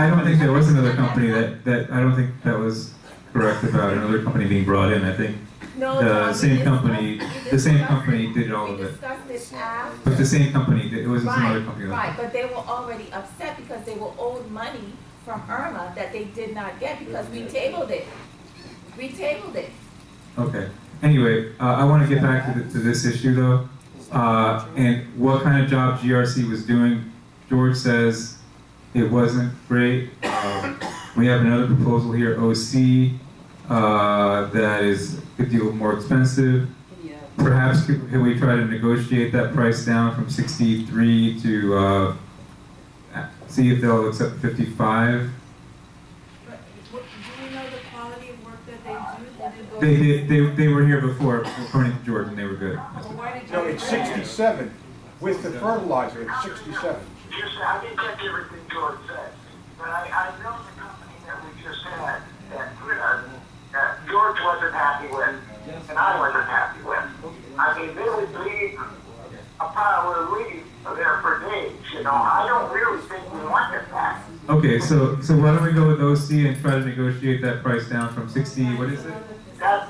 I don't think there was another company that, that, I don't think that was correct about another company being brought in. I think No, John, the we same discussed- company, we the same discussed- company did all of We it. discussed this after. But the same company, did- it wasn't some other Right, company. right, but they were already upset because they were owed money from Irma that they did not get because we tabled it. We tabled it. Okay, anyway, uh, I wanna get back to, the- to this issue though. Uh, and what kind of job GRC was doing, George says it wasn't great. Um, We have another proposal here, OC, uh, that is a good deal more expensive. Perhaps could, could we try to negotiate that price down from sixty-three to, uh, see if they'll accept fifty-five? But what, do you know the quality of work that they do? Did it go- They, they, they, they were here before, according to George, and they were good. Well, why did you? No, it's agree? sixty-seven with the fertilizer, it's sixty-seven. Yes, I didn't catch everything George said, but I, I know the company that we just had, that, uh, that George wasn't happy with, and I wasn't happy with. I mean, they would leave a pile of leaves there for days, you know, I don't really think we want it back. Okay, so, so why don't we go with OC and try to negotiate that price down from sixty, what is it? That,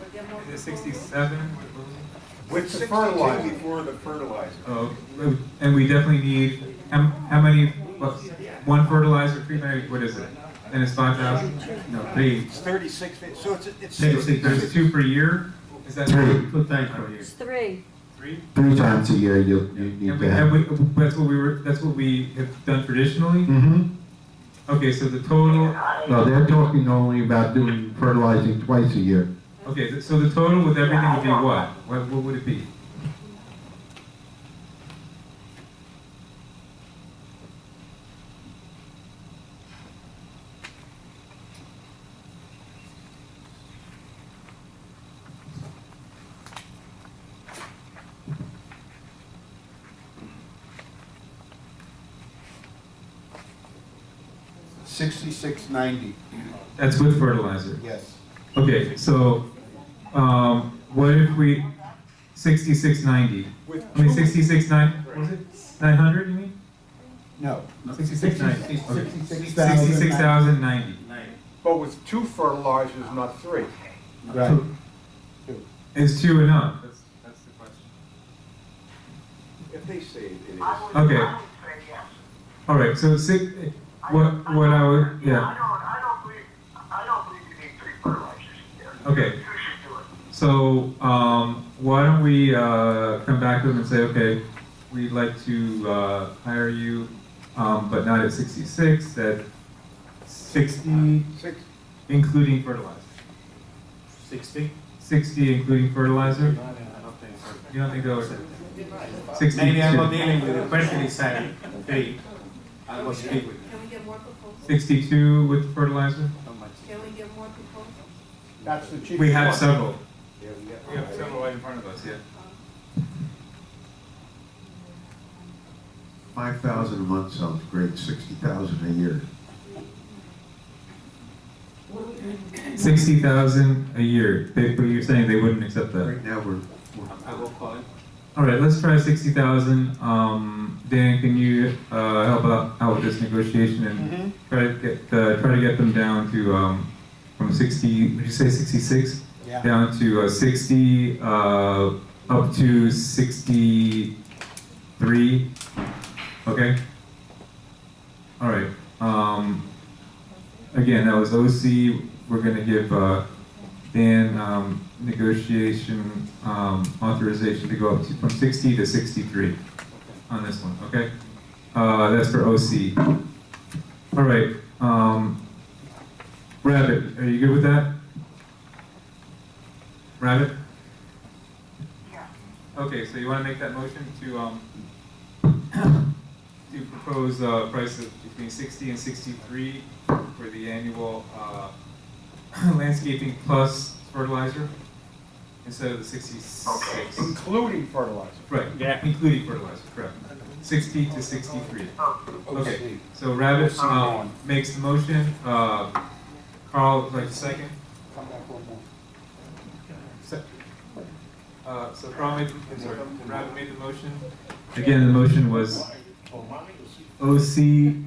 Was there more Is it proposals? sixty-seven? With the fertilizer. Before the fertilizer. Oh, and we definitely need, how, how many, what, one fertilizer treatment, what is it? And it's five thousand? No, three. It's thirty-six, so it's, it's. Say- say There's two per year? Is that? Three. Put that per year. It's three. Three? Three times a year you, you And need we, to have. and we, that's what we were, that's what we have done traditionally? Mm-hmm. Okay, so the total, No, they're talking only about doing fertilizing twice a year. okay, so the total with everything would be what? What, what would it be? Sixty-six ninety, That's with fertilizer? yes. Okay, so, um, what if we, sixty-six ninety, With I mean sixty-six nine, what was it, nine hundred, you mean? No. Sixty-six ninety. Sixty-six Sixty-six thousand ninety, But with two fertilizers, not three. Right. is two enough? That's, that's the question. If they say it is. I would, Okay. I would say yes. All right, so six, what, what I would, I yeah, don't, I don't believe, I don't believe you need three fertilizers here. Okay. You should do it. so, um, why don't we, uh, come back to them and say, okay, we'd like to, uh, hire you, um, but not at sixty-six, at sixty, Six, Including fertilizer. Sixty? Sixty including fertilizer? You don't think that was sixty? Maybe I'm not dealing with the person inside. Hey, I was speak with Can we get more proposals? Sixty-two with fertilizer? Can we get more proposals? that's the cheapest. We have one. several. Yeah, we have- right in front of us, yeah. Five thousand a month sounds great, sixty thousand a year. Sixty thousand a year, they, but you're saying they wouldn't accept that? Right now, we're, we're I will call him. All right, let's try sixty thousand, um, Dan, can you, uh, help out, out with this negotiation Mm-hmm. and try to get, uh, try to get them down to, um, from sixty, did you say sixty-six? Yeah. down to uh, 60, uh, up to 63, okay? All right, um, again, that was OC, we're gonna give, uh, Dan, um, negotiation, um, authorization to go up to, from 60 to 63 on this one, okay? Uh, that's for OC. All right, um, Rabbit, are you good with that? Rabbit? Yeah. Okay, so you want to make that motion to, um, to propose a price of between sixty and sixty-three for the annual, uh, landscaping plus fertilizer instead of the sixty-six? Including fertilizer. Right, yeah, including fertilizer, correct. Sixty to sixty-three. Oh, Okay, OC. so Rabbit, OC. um, makes the motion, uh, Carl, would like the second? Come back one more. Se- Uh, so Carl made, I'm sorry, Rabbit made the motion. Again, the motion was OC